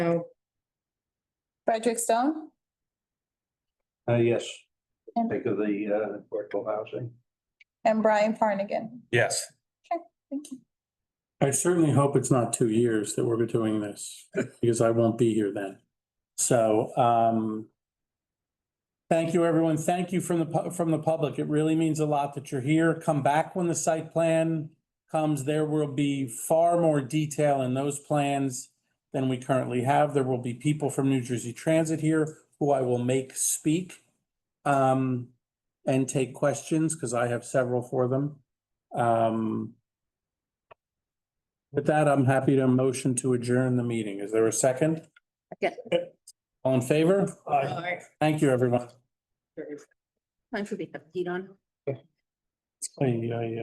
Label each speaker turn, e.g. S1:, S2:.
S1: No.
S2: Frederick Stone,
S3: Uh, yes,
S2: And-
S3: think of the, uh, affordable housing.
S2: and Brian Farnigan.
S4: Yes.
S2: Thank you.
S5: I certainly hope it's not two years that we're doing this, because I won't be here then. So, um, thank you, everyone. Thank you from the, pu- from the public. It really means a lot that you're here. Come back when the site plan comes. There will be far more detail in those plans than we currently have. There will be people from New Jersey Transit here who I will make speak um, and take questions, because I have several for them. Um, with that, I'm happy to motion to adjourn the meeting. Is there a second?
S1: Second.
S5: All in favor? Thank you, everyone.
S1: Time for the, you don't.
S5: Aye, aye, aye.